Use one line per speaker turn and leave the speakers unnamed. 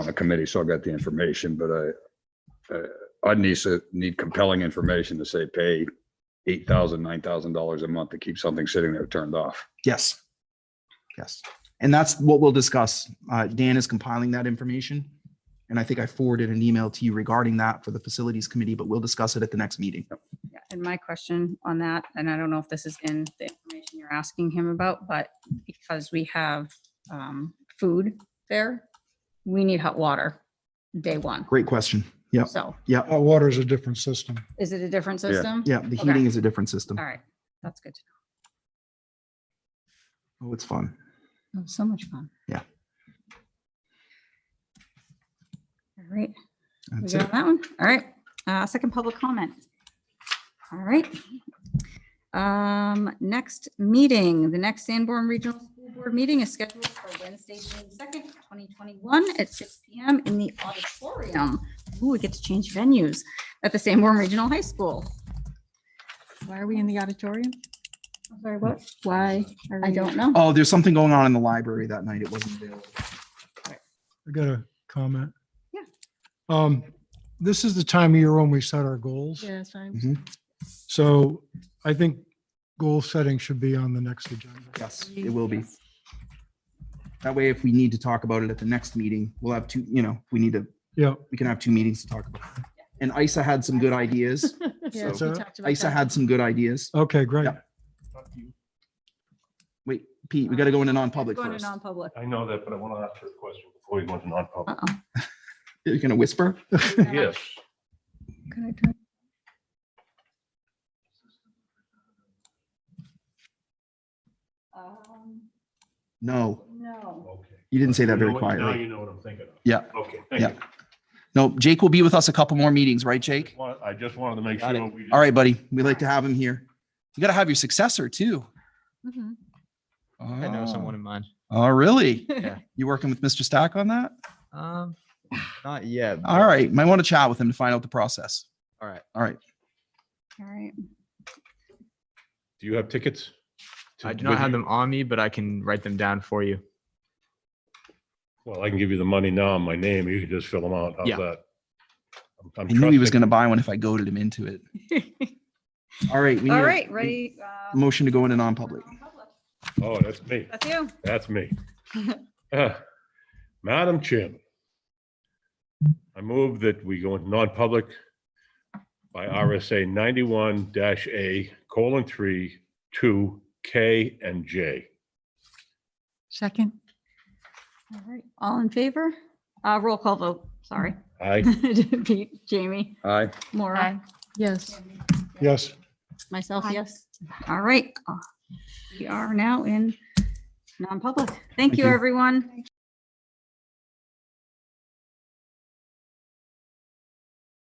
the committee, so I got the information, but I, uh, I'd need, to- need compelling information to say pay eight thousand, nine thousand dollars a month to keep something sitting there turned off.
Yes. Yes. And that's what we'll discuss. Uh, Dan is compiling that information. And I think I forwarded an email to you regarding that for the facilities committee, but we'll discuss it at the next meeting.
Yeah, And my question on that, and I don't know if this is in the information you're asking him about, but because we have um, food there, we need hot water day one.
Great question. Yep.
So
Yep.
Hot water is a different system.
is it a different
Yeah.
system?
Yeah. The
Okay.
heating is a different system.
All right, that's good. to
Oh, it's fun.
know. That was So much fun.
Yeah.
All right, we
That's
good
it.
on that one. All right, uh, second public comment. All right. Um, next meeting, the next Sanborn Regional School Board meeting is scheduled for Wednesday, June second, twenty twenty-one at six P M in the auditorium. Ooh, we get to change venues at the Sanborn Regional High School.
Why are we in the auditorium?
I'm Sorry, what? Why? I don't know.
Oh, there's something going on in the library that night. It wasn't available.
I got a comment.
Yeah.
Um, this is the time of year when we set our goals.
Yeah, it's fine.
So I think goal setting should be on the next agenda.
Yes, it will be. That way, if we need to talk about it at the next meeting, we'll have two, you know, we need to,
Yeah,
we can have two meetings to talk about. it. And ISA had some good ideas.
Yeah, we
So-
talked about
ISA
that.
had some good ideas.
okay, great.
Yeah. Wait, Pete, we got to go into non-public
Going to
first.
non-public.
I know that, but I want to ask you a question before we go into non-public.
Uh-oh.
You're going to whisper?
Yes,
Can I turn- Um,
No,
No.
okay.
you didn't say that
You know
very
what- Now
quietly.
you know what I'm thinking of.
Yeah.
Okay, thank
Yeah.
you.
No, Jake will be with us a couple more meetings, right, Jake?
Wa- I just wanted to make
Got it.
sure. we didn't-
All right, buddy. We like to have him here. You got to have your successor too.
Mhm.
I know someone in mind.
Oh, really?
Yeah.
You working with Mr. Stack on that?
Um, not yet.
All right. Might want to chat with him to find out the process.
All right.
All right.
All right.
Do you have tickets? to-
I do not
with
have
you?
them on me, but I can write them down for you.
Well, I can give you the money now, my name, you can just fill them out. How's
Yeah.
that? I'm- I'm
I knew he was
trusting-
going to buy one if I goaded him into it. All right. we need a-
All right, ready? uh,
Motion to go into non-public.
non-public.
Oh, that's me.
That's you.
That's me. Uh, Madam Chairman, I move that we go into non-public by RSA ninety-one dash A colon three, two, K and J.
Second,
All right. All in favor? Uh, roll call vote, sorry.
Aye.
Pete, Jamie,
Aye.
Maura,
yes.
Yes.
myself,
Aye.
yes. All right. Uh, We are now in non-public. Thank
Thank
you,
you.
everyone.